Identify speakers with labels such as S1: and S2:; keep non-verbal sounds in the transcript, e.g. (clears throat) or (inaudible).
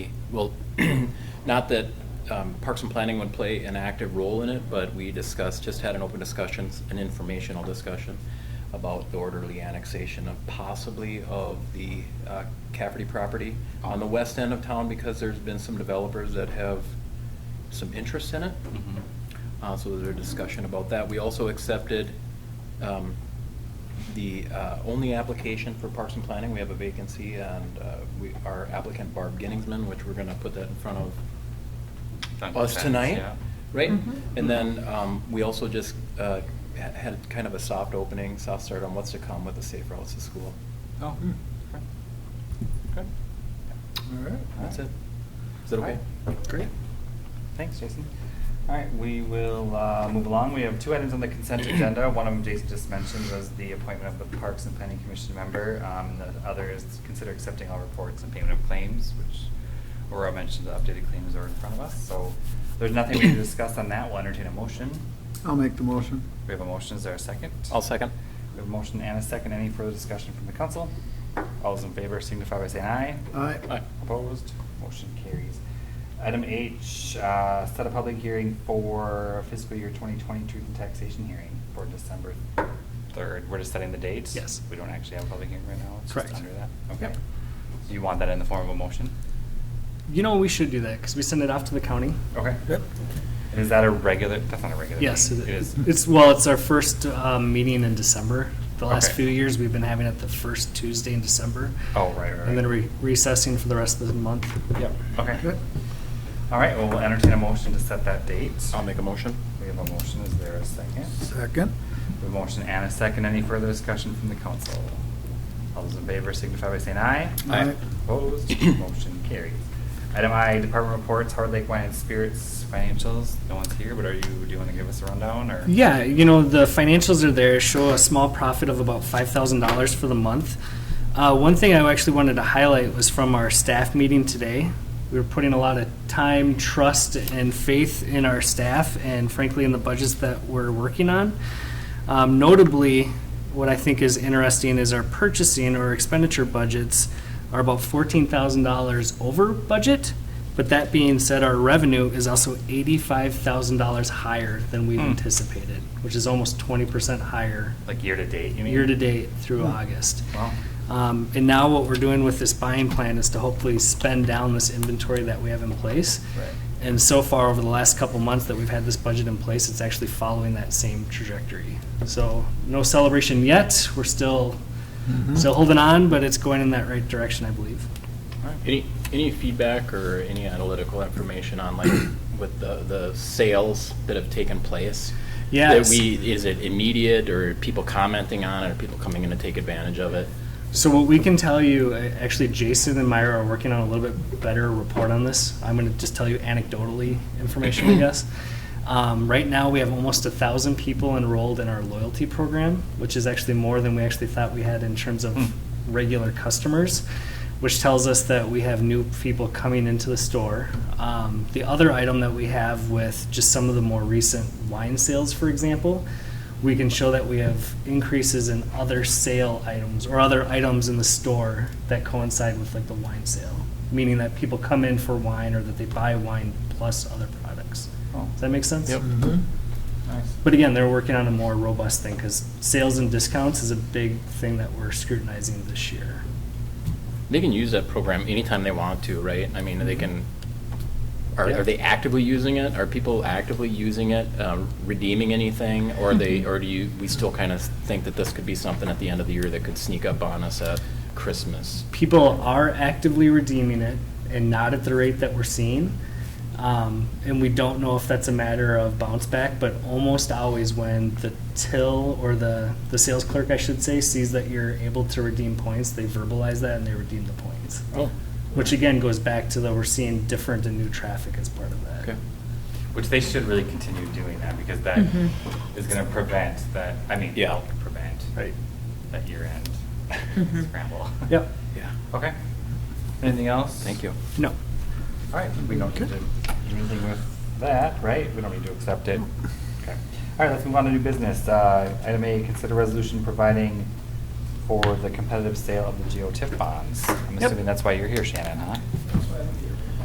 S1: well, (clears throat) not that um, Parks and Planning would play an active role in it, but we discussed, just had an open discussion, an informational discussion about the orderly annexation of possibly of the uh, Cafferty property on the west end of town because there's been some developers that have some interest in it.
S2: Mm-hmm.
S1: Uh, So there's a discussion about that. We also accepted um, the uh, only application for Parks and Planning. We have a vacancy, and uh, we, our applicant Barb Ginningsman, which we're going to put that in front of
S2: Done
S1: us
S2: consent,
S1: tonight,
S2: yeah.
S1: right?
S3: Mhm.
S1: And then um, we also just uh, ha- had kind of a soft opening, soft start on what's to come with the Safe Routes to School.
S2: Oh,
S4: Hmm.
S2: okay. Good.
S4: All right.
S1: That's it. Is that okay?
S4: Great.
S2: Thanks, Jason. All right, we will uh, move along. We have two items on the consent agenda. One of them Jason just mentioned was the appointment of the Parks and Planning Commission member. Um, The other is to consider accepting all reports and payment of claims, which Aurora mentioned, the updated claims are in front of us. So there's nothing we can discuss on that. We'll entertain a motion.
S4: I'll make the motion.
S2: We have a motion. Is there a second?
S1: I'll second.
S2: We have a motion and a second. Any further discussion from the council? All those in favor signify by saying aye.
S4: Aye.
S1: Aye.
S2: Opposed? Motion carries. Item H, uh, set a public hearing for fiscal year 2020 truth and taxation hearing for December 3rd. We're just setting the date?
S4: Yes.
S2: We don't actually have a public hearing right now? It's just
S4: Correct.
S2: under that? Okay.
S4: Yep.
S2: Do you want that in the form of a motion?
S5: You know, we should do that because we send it off to the county.
S2: Okay. And Is that a regular, that's not a regular?
S5: Yes,
S2: meeting.
S5: it
S2: It is.
S5: is. It's, well, it's our first um, meeting in December. The last
S2: Okay.
S5: few years, we've been having it the first Tuesday in December.
S2: Oh, right, right, right.
S5: And then re- recessing for the rest of the month. Yep.
S2: Okay. All right, well, we'll entertain a motion to set that date.
S1: I'll make a motion.
S2: We have a motion. Is there a second?
S4: Second.
S2: The motion and a second. Any further discussion from the council? All those in favor signify by saying aye.
S4: Aye. Aye.
S2: Opposed,
S1: (clears throat)
S2: motion carries. Item I, department reports, Hard Lake Wine and Spirits financials. No one's here, but are you, do you want to give us a rundown or?
S5: Yeah, you know, the financials are there, show a small profit of about $5,000 for the month. Uh, One thing I actually wanted to highlight was from our staff meeting today. We were putting a lot of time, trust, and faith in our staff, and frankly, in the budgets that we're working on. Um, Notably, what I think is interesting is our purchasing or expenditure budgets are about $14,000 over budget, but that being said, our revenue is also $85,000 higher than we've
S2: Hmm.
S5: anticipated, which is almost 20% higher
S2: Like year to date, you mean? hmm.
S5: year-to-date through August.
S2: Wow.
S5: Um, And now what we're doing with this buying plan is to hopefully spend down this inventory that we have in place.
S2: Right.
S5: And so far, over the last couple months that we've had this budget in place, it's actually following that same trajectory. So no celebration yet. We're still,
S4: Mhm.
S5: still holding on, but it's going in that right direction, I believe.
S2: All right.
S1: Any, any feedback or any analytical information on
S5: (clears throat)
S1: like with the, the sales that have taken place?
S5: Yes.
S1: That we, is it immediate or people commenting on it or people coming in to take advantage of it?
S5: So what we can tell you, a- actually, Jason and Myra are working on a little bit better report on this. I'm going to just tell you anecdotally information, I guess. Um, right now, we have almost a thousand people enrolled in our loyalty program, which is actually more than we actually thought we had in terms of
S2: Hmm.
S5: regular customers, which tells us that we have new people coming into the store. Um, the other item that we have with just some of the more recent wine sales, for example, we can show that we have increases in other sale items or other items in the store that coincide with like the wine sale, meaning that people come in for wine or that they buy wine plus other products.
S2: Oh,
S5: Does that make sense?
S1: Yep.
S4: Mhm.
S2: nice.
S5: But again, they're working on a more robust thing because sales and discounts is a big thing that we're scrutinizing this year.
S1: They can use that program anytime they want to, right? I mean, they can, are,
S5: Yeah.
S1: are they actively using it? Are people actively using it, um, redeeming anything? Or are
S5: Mm-hmm.
S1: they, or do you, we still kind of think that this could be something at the end of the year that could sneak up on us at Christmas?
S5: people are actively redeeming it and not at the rate that we're seeing. Um, and we don't know if that's a matter of bounce back, but almost always when the till or the, the sales clerk, I should say, sees that you're able to redeem points, they verbalize that and they redeem the points.
S1: Oh,
S5: Which again goes back to the we're seeing different and new traffic as part of that.
S1: okay.
S2: Which they should really continue doing that because that
S3: Mhm.
S2: is going to prevent that, I mean,
S1: Yeah.
S2: help prevent
S5: Right.
S2: that year-end
S3: Mhm.
S2: scramble.
S5: Yep.
S1: Yeah.
S2: (laughs) Okay. Anything else?
S1: Thank you.
S5: No.
S2: All right, we don't need to do anything with that, right? We don't need to accept it. Okay. All right, let's move on to new business. Uh, Item A, consider resolution providing for the competitive sale of the GO TIF bonds. I'm
S5: Yep.
S2: assuming that's why you're here, Shannon, huh?